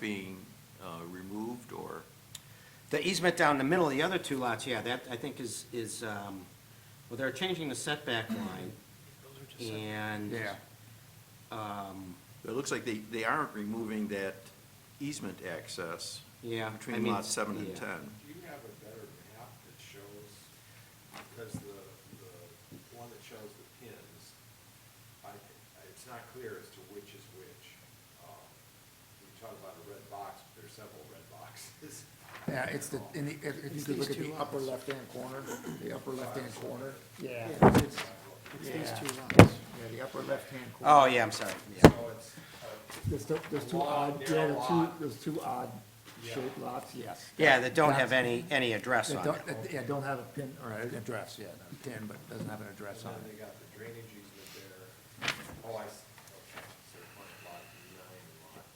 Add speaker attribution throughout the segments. Speaker 1: being uh, removed or?
Speaker 2: The easement down the middle, the other two lots, yeah, that, I think is, is, um, well, they're changing the setback line, and. Um,
Speaker 1: It looks like they, they aren't removing that easement access.
Speaker 2: Yeah, I
Speaker 1: Between
Speaker 2: mean,
Speaker 1: lots seven and
Speaker 2: yeah.
Speaker 1: ten.
Speaker 3: Do you have a better map that shows, because the, the one that shows the pins, I, it's not clear as to which is which. Um, You talk about a red box, but there's several red boxes.
Speaker 4: Yeah, it's the, in the, if- if you
Speaker 5: It's
Speaker 4: could look
Speaker 5: these
Speaker 4: at the
Speaker 5: two
Speaker 4: upper
Speaker 5: lots.
Speaker 4: left-hand corner, the upper left-hand corner, yeah.
Speaker 5: Yeah, it's- It's these
Speaker 4: Yeah.
Speaker 5: two lots.
Speaker 4: Yeah, the upper left-hand corner.
Speaker 2: Oh, yeah, I'm sorry, yeah.
Speaker 3: So it's, uh,
Speaker 4: There's, the- there's two
Speaker 3: Long,
Speaker 4: odd, yeah,
Speaker 3: narrow
Speaker 4: there's two,
Speaker 3: lot.
Speaker 4: there's two odd
Speaker 3: Yeah.
Speaker 4: shaped lots, yes.
Speaker 2: Yeah, that don't have
Speaker 4: That's-
Speaker 2: any, any address
Speaker 4: That
Speaker 2: on it.
Speaker 4: don't, that- yeah, don't have a pin, or an address, yeah, no, pin, but doesn't have an address on
Speaker 3: and then they
Speaker 4: it.
Speaker 3: got the drainage easement there. Oh, I, s- okay, so it's lot nine, lot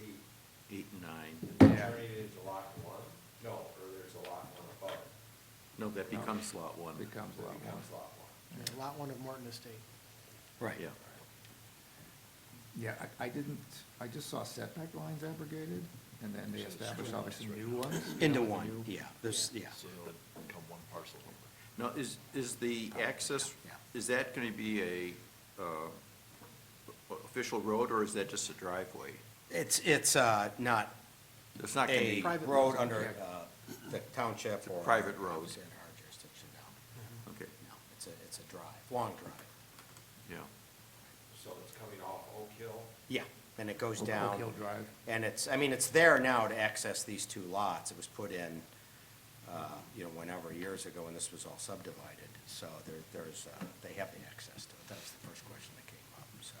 Speaker 3: eight.
Speaker 1: Eight and nine.
Speaker 3: Is Drainage into lot one? No, or there's a lot one above. it.
Speaker 1: No, that becomes lot one.
Speaker 4: Becomes lot
Speaker 3: It
Speaker 4: one,
Speaker 3: becomes lot one.
Speaker 5: Yeah, Lot one of Morton Estate.
Speaker 2: Right.
Speaker 1: Yeah.
Speaker 4: yeah, I, I didn't, I just saw setback lines abrogated, and then they established obviously new ones.
Speaker 2: Into
Speaker 4: New-
Speaker 2: one, yeah, there's, yeah.
Speaker 3: become one parcel number.
Speaker 1: Now, is, is the access,
Speaker 2: yeah.
Speaker 1: is that going to be a uh, o- official road or is that just a driveway?
Speaker 2: It's, it's, uh, not
Speaker 1: It's not going to
Speaker 2: a
Speaker 1: be,
Speaker 5: Private
Speaker 2: road
Speaker 5: roads.
Speaker 2: under, uh, the township or.
Speaker 1: private road.
Speaker 2: It's in our jurisdiction, no.
Speaker 1: okay,
Speaker 2: No, it's a, it's a drive, long drive.
Speaker 1: yeah.
Speaker 3: So it's coming off Oak Hill,
Speaker 2: Yeah, and it goes
Speaker 4: Oak- Oak
Speaker 2: down.
Speaker 4: Hill Drive.
Speaker 2: And it's, I mean, it's there now to access these two lots. It was put in, uh, you know, whenever, years ago, when this was all subdivided. So there, there's, uh, they have the access to it. That was the first question that came up, so.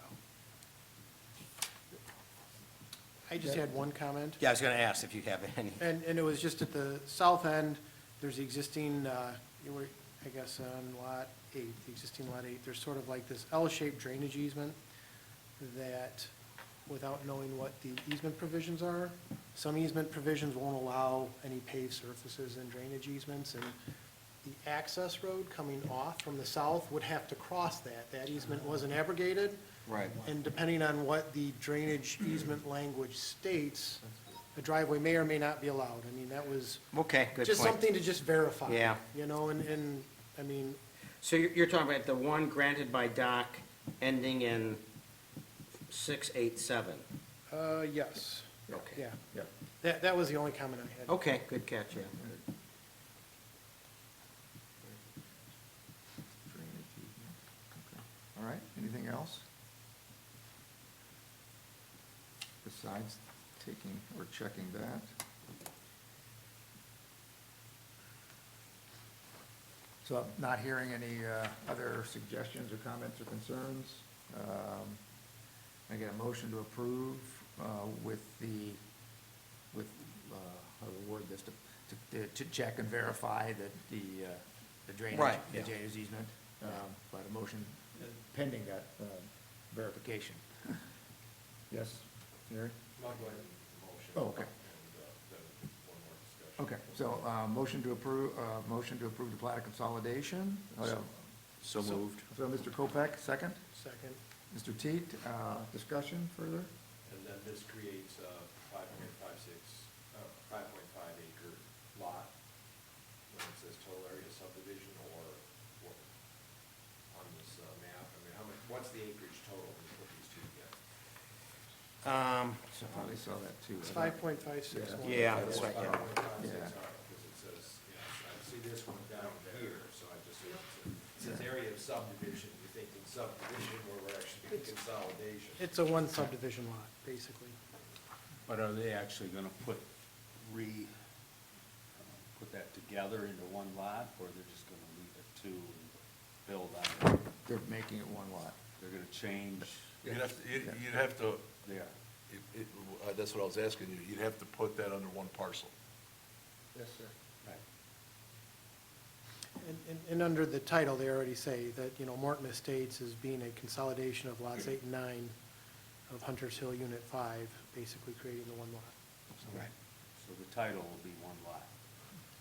Speaker 5: I just had one comment.
Speaker 2: Yeah, I was gonna ask if you have any.
Speaker 5: And, and it was just at the south end, there's the existing, uh, you were- I guess on lot eight, the existing lot eight, there's sort of like this L-shaped drainage easement that, without knowing what the easement provisions are, some easement provisions won't allow any paved surfaces and drainage easements, and the access road coming off from the south would have to cross that. That easement wasn't abrogated.
Speaker 2: Right.
Speaker 5: And depending on what the drainage easement language states, a driveway may or may not be allowed. I mean, that was
Speaker 2: Okay, good
Speaker 5: just
Speaker 2: point.
Speaker 5: something to just verify.
Speaker 2: Yeah.
Speaker 5: You know, and, and, I mean,
Speaker 2: So you're, you're talking about the one granted by Doc ending in six, eight, seven?
Speaker 5: uh, yes,
Speaker 2: Okay.
Speaker 5: yeah. That, that was the only comment I had.
Speaker 2: Okay, good catch, yeah.
Speaker 4: Drainage easement, okay. All right, anything else? Besides taking or checking that? So I'm not hearing any uh, other suggestions or comments or concerns. Um, I get a motion to approve uh, with the, with, uh, how to word this, to, to- to check and verify that the, uh, the drainage.
Speaker 2: Right,
Speaker 4: The
Speaker 2: yeah.
Speaker 4: drainage easement, um, but a motion pending that uh, verification. Yes, Gary?
Speaker 3: I'll go ahead and motion.
Speaker 4: Oh, okay.
Speaker 3: And, uh, then one more discussion.
Speaker 4: Okay, so uh, motion to approve, uh, motion to approve the plat of consolidation. Uh,
Speaker 1: So moved.
Speaker 4: So Mr. Kopeck, second.
Speaker 5: Second,
Speaker 4: Mr. Teat, uh, discussion further?
Speaker 3: And then this creates a five point five six, uh, five point five acre lot, when it says total area subdivision or what, on this uh, map, I mean, how much, what's the acreage total when you put these two together?
Speaker 2: Um, so-
Speaker 4: I Probably saw that too.
Speaker 5: it's five point five six one.
Speaker 2: Yeah, that's right, yeah.
Speaker 4: Yeah.
Speaker 3: Because it says, yeah, I see this one down here, so I just, it says area of subdivision, you're thinking subdivision where we're actually doing consolidation.
Speaker 5: It's a one subdivision lot, basically.
Speaker 6: But are they actually gonna put, re, uh, put that together into one lot, or they're just gonna leave it two and build on it?
Speaker 4: They're making it one lot.
Speaker 6: They're gonna change,
Speaker 7: You'd have, to- you'd, you'd have to,
Speaker 6: they are.
Speaker 7: it, it, uh, that's what I was asking you, you'd have to put that under one parcel.
Speaker 4: Yes, sir.
Speaker 5: And, and, and under the title, they already say that, you know, Morton Estates is being a consolidation of lots eight and nine of Hunter's Hill Unit Five, basically creating the one lot.
Speaker 6: Right. So the title will be one lot.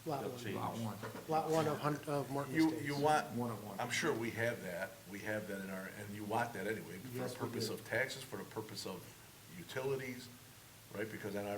Speaker 5: Lot
Speaker 6: They'll
Speaker 5: one.
Speaker 6: change.
Speaker 4: Lot one.
Speaker 5: Lot one of Hunt, of Morton
Speaker 7: You,
Speaker 5: Estates.
Speaker 7: you want,
Speaker 4: One of one.
Speaker 7: I'm sure we have that, we have that in our, and you want that anyway, for
Speaker 4: Yes,
Speaker 7: the
Speaker 4: we
Speaker 7: purpose
Speaker 4: do.
Speaker 7: of taxes, for the purpose of utilities, right? Because then I